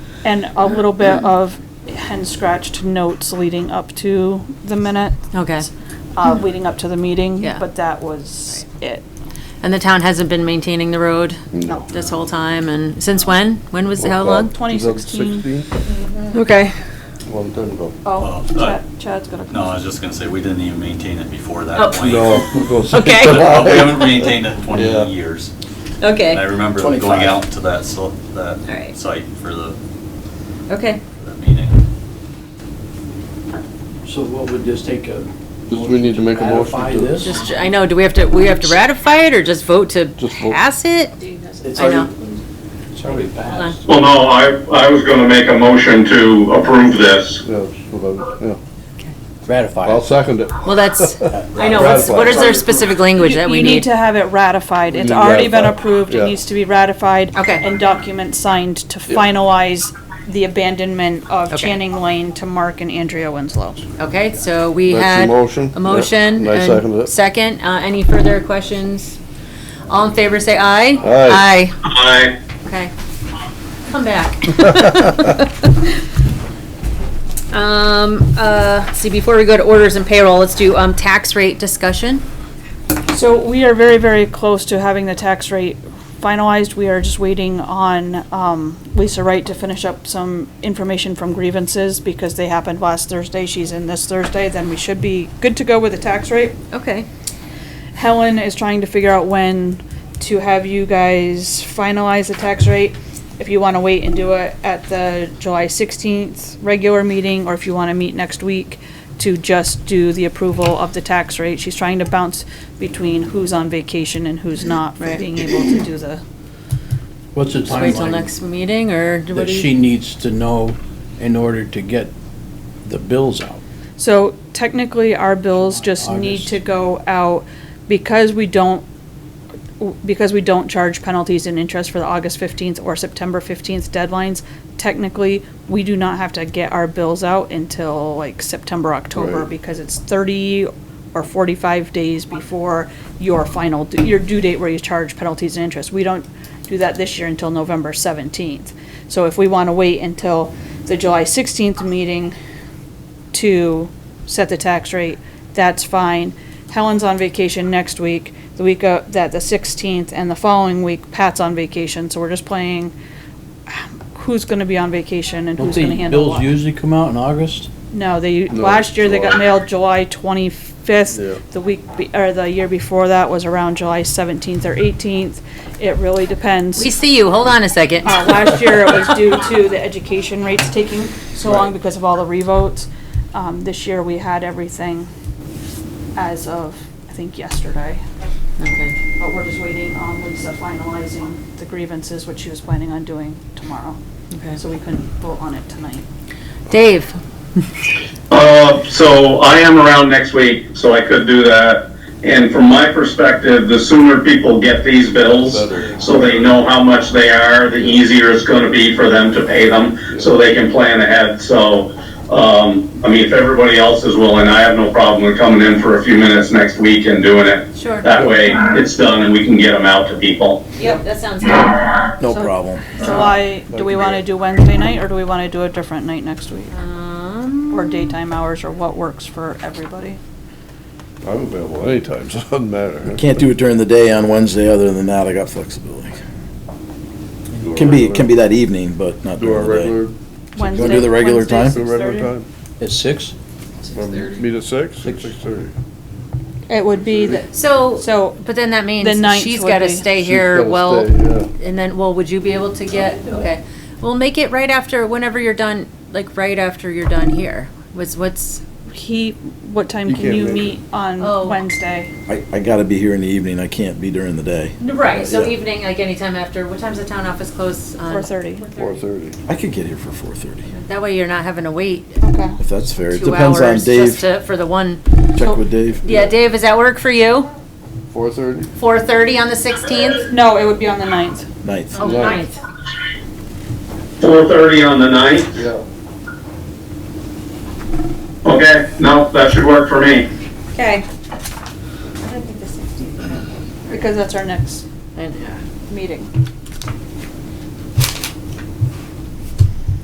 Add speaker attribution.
Speaker 1: and a little bit of hand scratched notes leading up to the minute.
Speaker 2: Okay.
Speaker 1: Uh, leading up to the meeting.
Speaker 2: Hmm. Yeah.
Speaker 1: But that was it.
Speaker 2: And the town hasn't been maintaining the road
Speaker 1: No.
Speaker 2: this whole time, and since when? When was, how long?
Speaker 1: 2016.
Speaker 3: 2016?
Speaker 2: Okay.
Speaker 3: Long time ago.
Speaker 1: Oh,
Speaker 4: Well, uh,
Speaker 1: Chad- Chad's got a.
Speaker 4: No, I was just gonna say, we didn't even maintain it before
Speaker 2: Oh.
Speaker 4: that point.
Speaker 3: No. it was-
Speaker 2: Okay.
Speaker 4: But We haven't maintained it in
Speaker 3: Yeah.
Speaker 4: twenty years.
Speaker 2: Okay.
Speaker 4: And I remember going
Speaker 5: 25.
Speaker 4: out to that, so, that
Speaker 2: Alright.
Speaker 4: site for the,
Speaker 2: Okay.
Speaker 4: the meeting.
Speaker 5: So what would this take a?
Speaker 3: Just we need to make a motion
Speaker 5: Ratify
Speaker 3: to-
Speaker 5: this?
Speaker 2: Just, I know, do we have to, we have to ratify it or just vote to
Speaker 3: Just vote.
Speaker 2: pass it?
Speaker 5: It's
Speaker 2: I know.
Speaker 5: already- It's already passed.
Speaker 6: Well, no, I, I was gonna make a motion to approve this.
Speaker 3: Yeah, that's what I was- yeah.
Speaker 7: Ratify
Speaker 3: I'll
Speaker 7: it.
Speaker 3: second it.
Speaker 2: Well, that's, I know, what's, what is their specific language that
Speaker 1: You
Speaker 2: we
Speaker 1: you need
Speaker 2: need?
Speaker 1: to have it ratified. It's
Speaker 3: need
Speaker 1: already been
Speaker 3: ratified.
Speaker 1: approved. It
Speaker 3: Yeah.
Speaker 1: needs to be ratified.
Speaker 2: Okay.
Speaker 1: And documents signed to finalize the abandonment of
Speaker 2: Okay.
Speaker 1: Channing Lane to Mark and Andrea Winslow.
Speaker 2: Okay, so we
Speaker 3: That's a
Speaker 2: had.
Speaker 3: motion.
Speaker 2: A motion.
Speaker 3: Yeah, and I
Speaker 2: and
Speaker 3: seconded it.
Speaker 2: Second, uh, any further questions? All in favor, say aye.
Speaker 3: Aye.
Speaker 2: Aye,
Speaker 6: I,
Speaker 2: okay. Come back. Um, uh, see, before we go to orders and payroll, let's do, um, tax rate discussion.
Speaker 1: So we are very, very close to having the tax rate finalized. We are just waiting on um, Lisa Wright to finish up some information from grievances because they happened last Thursday. She's in this Thursday, then we should be good to go with the tax rate.
Speaker 2: Okay.
Speaker 1: Helen is trying to figure out when to have you guys finalize the tax rate. If you want to wait and do it at the July 16th regular meeting, or if you want to meet next week to just do the approval of the tax rate. She's trying to bounce between who's on vacation and who's not for being able to do the.
Speaker 5: What's the
Speaker 2: Just wait till
Speaker 5: timeline
Speaker 2: next meeting, or do what
Speaker 5: that
Speaker 2: do
Speaker 5: she
Speaker 2: you?
Speaker 5: needs to know in order to get the bills out?
Speaker 1: So technically, our bills just need
Speaker 5: August.
Speaker 1: to go out because we don't, because we don't charge penalties and interest for the August 15th or September 15th deadlines. Technically, we do not have to get our bills out until like September, October,
Speaker 3: Right.
Speaker 1: because it's 30 or 45 days before your final, d- your due date where you charge penalties and interest. We don't do that this year until November 17th. So if we want to wait until the July 16th meeting to set the tax rate, that's fine. Helen's on vacation next week, the week of, that, the 16th, and the following week, Pat's on vacation, so we're just playing who's gonna be on vacation and
Speaker 5: Don't
Speaker 1: who's gonna
Speaker 5: the
Speaker 1: handle
Speaker 5: bills
Speaker 1: what.
Speaker 5: usually come out in August?
Speaker 1: No, they,
Speaker 3: No,
Speaker 1: last year they got
Speaker 3: July.
Speaker 1: mailed July 25th.
Speaker 3: Yeah.
Speaker 1: The week, be- or the year before that was around July 17th or 18th. It really depends.
Speaker 2: We see you, hold on a second.
Speaker 1: Uh, last year, it was due to the education rates taking so long because of all the revotes. Um, this year, we had everything as of, I think, yesterday.
Speaker 2: Okay.
Speaker 1: But we're just waiting on Lisa finalizing the grievances, which she was planning on doing tomorrow.
Speaker 2: Okay.
Speaker 1: So we couldn't vote on it tonight.
Speaker 2: Dave,
Speaker 6: uh, so I am around next week, so I could do that. And from my perspective, the sooner people get these bills,
Speaker 3: Better.
Speaker 6: so they know how much they are, the easier it's gonna be for them to pay them, so they can plan ahead, so, um, I mean, if everybody else is willing, I have no problem with coming in for a few minutes next week and doing it.
Speaker 2: Sure.
Speaker 6: That way, it's done and we can get them out to people.
Speaker 2: Yep, that sounds good.
Speaker 5: No
Speaker 1: So-
Speaker 5: problem.
Speaker 1: July, do we want to do Wednesday night, or do we want to do a different night next week?
Speaker 2: Um,
Speaker 1: Or daytime hours, or what works for everybody?
Speaker 3: I'm available anytime, so it doesn't matter.
Speaker 7: Can't do it during the day on Wednesday, other than that, I got flexibility.
Speaker 3: Do a
Speaker 7: Can be, can be
Speaker 3: regular-
Speaker 7: that evening, but not
Speaker 3: Do our
Speaker 7: during the day.
Speaker 3: regular,
Speaker 1: Wednesday.
Speaker 7: do the regular
Speaker 1: Wednesday,
Speaker 7: time?
Speaker 3: do a
Speaker 1: 6:30?
Speaker 3: regular time.
Speaker 5: At six?
Speaker 3: Um, Meet at six,
Speaker 5: Six.
Speaker 3: six thirty.
Speaker 1: It would be the So,
Speaker 2: So, so, but then that means
Speaker 1: the ninth
Speaker 2: she's
Speaker 1: would
Speaker 2: gotta
Speaker 1: be-
Speaker 2: stay
Speaker 3: She's
Speaker 2: here,
Speaker 3: gotta
Speaker 2: well,
Speaker 3: stay, yeah.
Speaker 2: and then, well, would you be able to get, okay. We'll make it right after, whenever you're done, like, right after you're done here, was what's,
Speaker 1: He, what time
Speaker 3: You
Speaker 1: can
Speaker 3: can't
Speaker 1: you
Speaker 3: make it.
Speaker 1: meet on
Speaker 2: Oh.
Speaker 1: Wednesday?
Speaker 7: I, I gotta be here in the evening, I can't be during the day.
Speaker 2: right, so
Speaker 7: Yeah.
Speaker 2: evening, like, anytime after, what time's the town office close on?
Speaker 1: Four thirty.
Speaker 3: Four thirty.
Speaker 7: I could get here for four thirty,
Speaker 2: That way you're not having to wait
Speaker 1: Okay.
Speaker 7: if that's fair. It
Speaker 2: two
Speaker 7: depends on
Speaker 2: hours just
Speaker 7: Dave,
Speaker 2: to, for the one.
Speaker 7: check with Dave.
Speaker 2: Yeah, Dave, does that work for you?
Speaker 3: Four thirty?
Speaker 2: Four thirty on the sixteenth?
Speaker 1: No, it would be on the ninth.
Speaker 7: Ninth.
Speaker 2: Oh,
Speaker 3: Yeah.
Speaker 2: ninth.
Speaker 6: Four thirty on the ninth?
Speaker 3: Yeah.
Speaker 6: Okay, no, that should work for me.
Speaker 1: Okay. Because that's our next
Speaker 2: And, uh,
Speaker 1: meeting.